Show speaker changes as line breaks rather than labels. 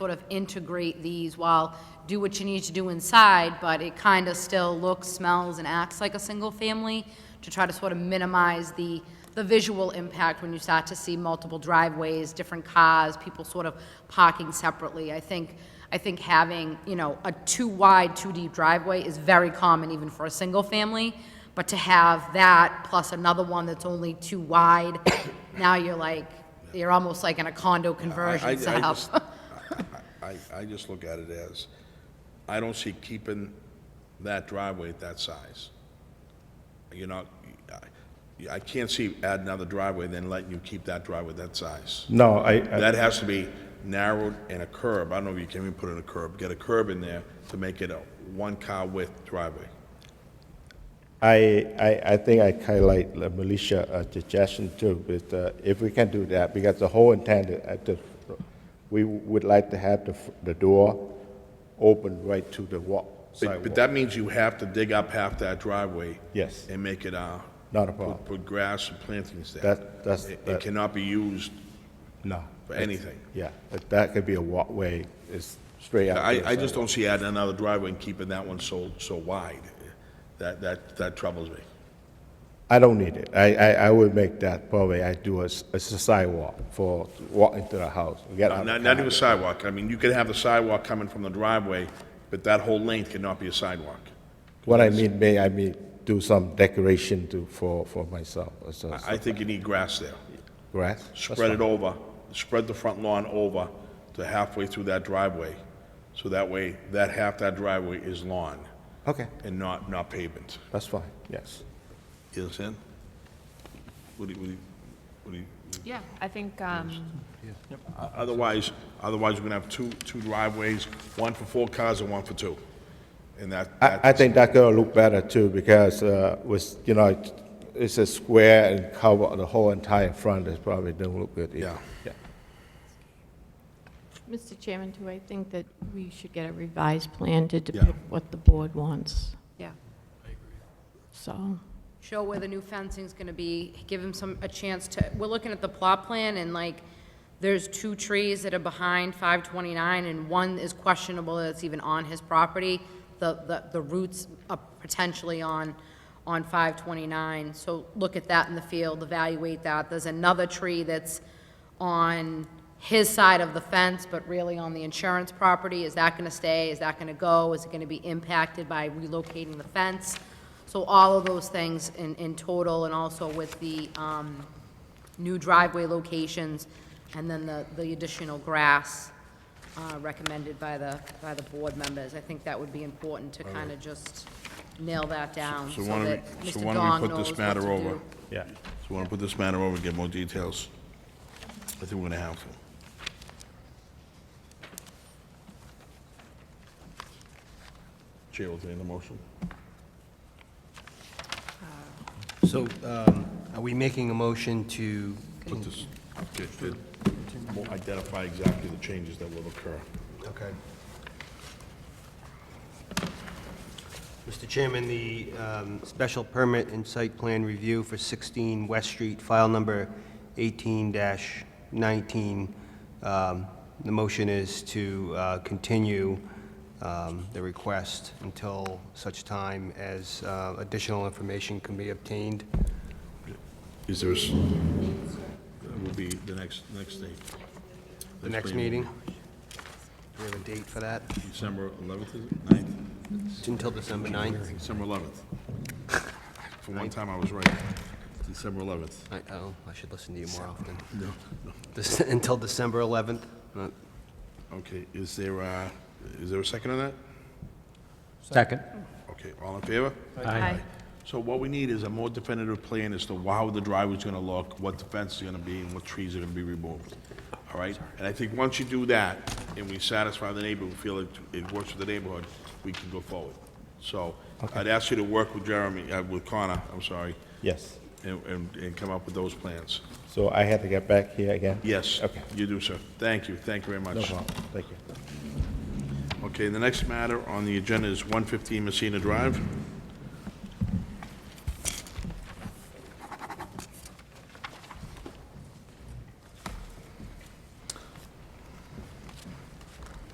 sort of integrate these while, do what you need to do inside, but it kind of still looks, smells, and acts like a single-family to try to sort of minimize the, the visual impact when you start to see multiple driveways, different cars, people sort of parking separately. I think, I think having, you know, a two-wide, two-deep driveway is very common even for a single-family, but to have that plus another one that's only two wide, now you're like, you're almost like in a condo
I- I- I
conversion setup.
just- I, I just look at it as, I don't see keeping that driveway at that size. You know, I, I can't see adding another driveway then letting you keep that driveway that size.
No, I, I-
That has to be narrowed and a curb, I don't know if you can even put in a curb, get a curb in there to make it a one-car width driveway.
I, I, I think I highlight the militia uh, suggestion too, but uh, if we can do that, because the whole intent is at the, we would like to have the, f- the door open right to the walk,
But but
sidewalk.
that means you have to dig up half that driveway.
Yes.
And make it, uh.
Not a
put-
problem.
Put grass and plantings there.
That- that's-
It- It
that-
cannot be used
No.
for anything.
Yeah, but that could be a walkway, it's straight out. to the
I, I just
sidewalk.
don't see adding another driveway and keeping that one so, so wide. That, that, that troubles me.
I don't need it. I, I, I would make that probably, I do a, s- a sidewalk for walking to the house. Get out of
Not,
the
not
car.
even sidewalk. I mean, you could have the sidewalk coming from the driveway, but that whole length cannot be a sidewalk.
What I mean, may I may do some decoration to, for, for myself, or so,
I, I think you need grass there.
grass?
Spread it over, spread the front lawn over to halfway through that driveway. So that way, that half that driveway is lawn
Okay,
and not, not pavement.
that's fine, yes.
You understand? What do you, what do you, what do you?
Yeah, I think, um,
Otherwise, otherwise, we're gonna have two, two driveways, one for four cars and one for two. And that,
I, I
that,
think that gonna look better too, because, uh, with, you know, it- it's a square and cover the whole entire front, it probably don't look good either.
yeah.
Mr. Chairman, do I think that we should get a revised plan to depict what the board wants?
Yeah.
So,
show where the new fencing's gonna be, give him some, a chance to, we're looking at the plot plan, and like, there's two trees that are behind five twenty-nine, and one is questionable that it's even on his property. The, the, the roots are potentially on, on five twenty-nine, so look at that in the field, evaluate that. There's another tree that's on his side of the fence, but really on the insurance property. Is that gonna stay? Is that gonna go? Is it gonna be impacted by relocating the fence? So all of those things in, in total, and also with the, um, new driveway locations, and then the, the additional grass, uh, recommended by the, by the board members. I think that would be important to kind of just nail that down, so
So why don't we-
that
so
Mr.
why don't we
Dong
put
knows
this
what
matter
to
over?
do.
Yeah.
So we wanna put this matter over and get more details. I think we're gonna have to. Chair will entertain the motion.
So um, are we making a motion to,
Put this, okay, good. We'll identify exactly the changes that will occur.
okay. Mr. Chairman, the um, special permit and site plan review for 16 West Street, file number 18-19, um, the motion is to uh, continue um, the request until such time as uh, additional information can be obtained.
Is there, s- that will be the next, next date.
The next meeting? Do we have a date for that?
December 11th, is it? 9th?
It's until December 9th.
December 11th. For one time, I was right. December 11th.
I, oh, I should listen to you more often. This- Until December 11th? Uh,
Okay, is there, uh, is there a second on that?
Second.
Okay, all in favor?
Aye.
So what we need is a more definitive plan as to how the driveway's gonna look, what the fence is gonna be, and what trees are gonna be removed, all right? And I think once you do that, and we satisfy the neighbor, we feel it, it works with the neighborhood, we can go forward. So, I'd ask you to work with Jeremy, uh, with Connor, I'm sorry,
Yes,
and, and, and come up with those plans.
so I have to get back here again?
Yes,
Okay,
you do, sir. Thank you, thank you very much.
no problem, thank you.
Okay, the next matter on the agenda is 115 Messina Drive.